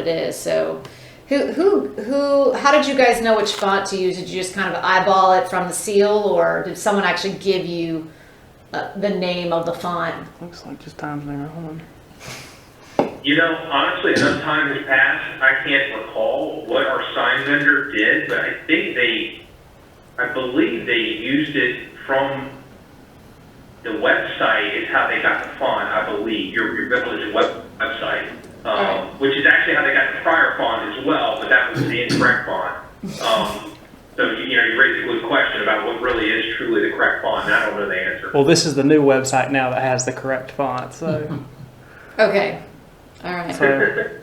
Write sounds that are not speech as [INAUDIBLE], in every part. it is. So, who who who? How did you guys know which font to use? Did you just kind of eyeball it from the seal, or did someone actually give you uh, the name of the font? Looks like just Times New Roman. You know, honestly, enough time has passed, I can't recall what our sign vendor did, but I think they, I believe they used it from the website is how they got the font, I believe, your, your village web, website. Alright. Um, which is actually how they got the prior font as well, but that was the incorrect font. Um, so, you know, you raised a good question about what really is truly the correct font, and I don't know the answer. Well, this is the new website now that has the correct font. So, Okay, all right. so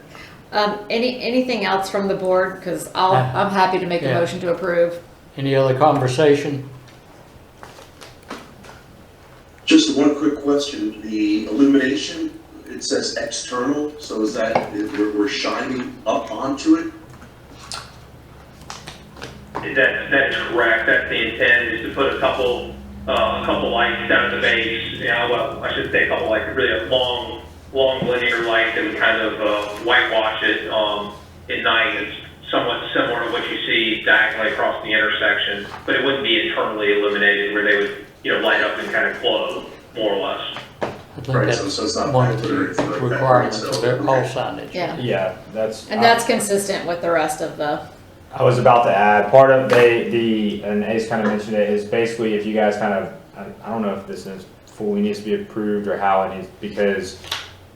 Um, any anything else from the board? Because I'll I'm happy to make a Yeah. motion to approve. Any other conversation? Just one quick question, the illumination, it says external, so is that, we're, we're shining up onto it? That, that's correct, that's the intent, is to put a couple, uh, a couple lights down at the base, yeah, well, I should say a couple lights, really a long, long linear light that would kind of, uh, whitewash it, um, at night, it's somewhat similar to what you see diagonally across the intersection, but it wouldn't be internally illuminated where they would, you know, light up and kind of glow, more or less. I think Right, that's so- so it's not One of planted or the anything like that, right? requirements of So, their all okay. signage. Yeah, Yeah, that's. and that's consistent with the rest of the. I was about to add, part of they, the, and Ace kind of mentioned it, is basically if you guys kind of, I- I don't know if this is fully needs to be approved or how it needs, because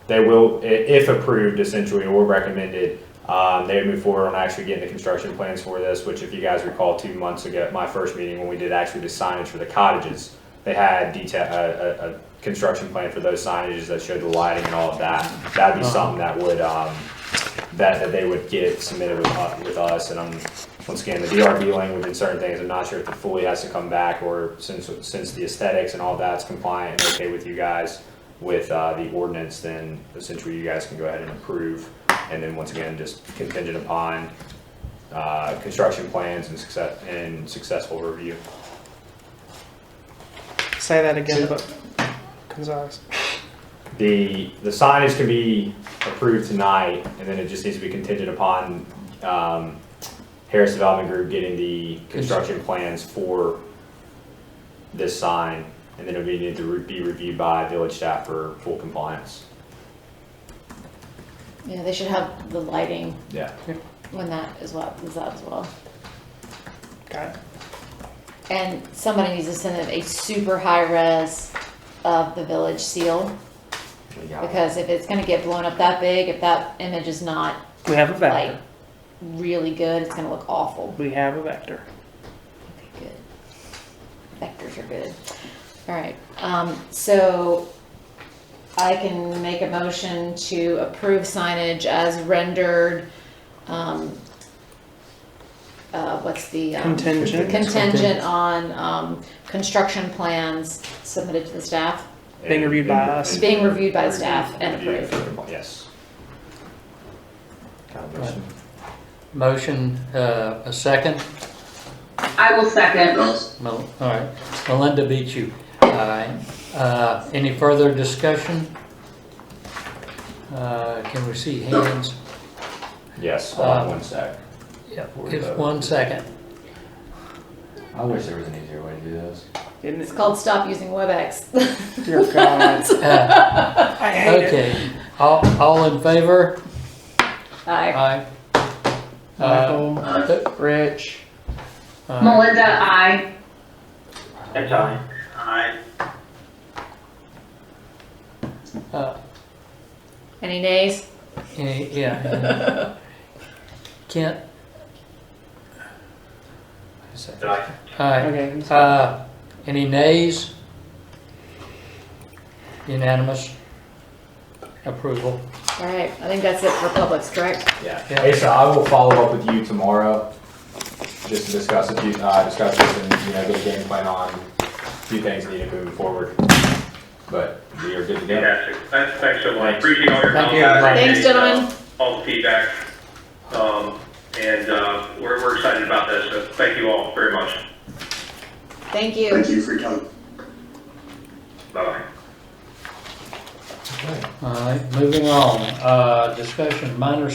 they will, i- if approved essentially or recommended, um, they would move forward on actually getting the construction plans for this, which if you guys recall, two months ago, my first meeting, when we did actually the signage for the cottages, they had detail, a, a, a construction plan for those signages that showed the lighting and all of that. That'd be something that would, um, that, that they would get submitted with, u- with us, and I'm, once again, the DRB language and certain things, I'm not sure if it fully has to come back, or since, since the aesthetics and all that's compliant and okay with you guys with, uh, the ordinance, then essentially you guys can go ahead and approve, and then once again, just contingent upon, uh, construction plans and success, and successful review. say that again, but concise. The, the signage can be approved tonight, and then it just needs to be contingent upon, um, Harris Development Group getting the construction plans for this sign, and then it'll be, need to re- be reviewed by village staff for full compliance. Yeah, they should have the lighting Yeah. when that is what is that as well. Got it. And somebody needs to send them a super high res of the village seal because if it's gonna get blown up that big, if that image is not We have a like vector. really good, it's gonna look awful. We have a vector. Good. Vectors are good. All right, um, so I can make a motion to approve signage as rendered, um, uh, what's the? um, Contingent. Contingent on, um, construction plans submitted to the staff. Being reviewed by us. Being reviewed by staff and Reviewed for approved. compli- Yes. Kind of Right. motion. Motion, uh, a second? I will second. Mel- All right, Melinda beat you. All right, Uh, any further discussion? Uh, Can we see hands? Yes, hold on Uh, one sec. If one second. I wish there was an easier way to do this. Isn't It's it? called Stop Using WebEx. Dear [LAUGHS] God. Uh, I hate it. Okay, all, all in favor? Aye. Aye. Uh, Michael, th- Rich, all right. Melinda, I. That's aye. Aye. Uh, Any nays? Any- Yeah. Kent, Aye. aye. [LAUGHS] okay, he's- Uh, Any nays? Unanimous approval. All right, I think that's it for Publix, correct? Yeah. Yeah, Asa, I will follow up with you tomorrow, just to discuss a few, uh, discuss this and, you know, get a game plan on a few things needed moving forward. But we are good to go. Fantastic. Thanks, thanks so much. Thanks. Appreciate all your Thank comments. you, everybody. Thanks, gentlemen. All the feedback. Um, and, uh, we're, we're excited about this, so thank you all very much. Thank you. Thank you for your time. Bye-bye. All right, moving on, uh, discussion, minor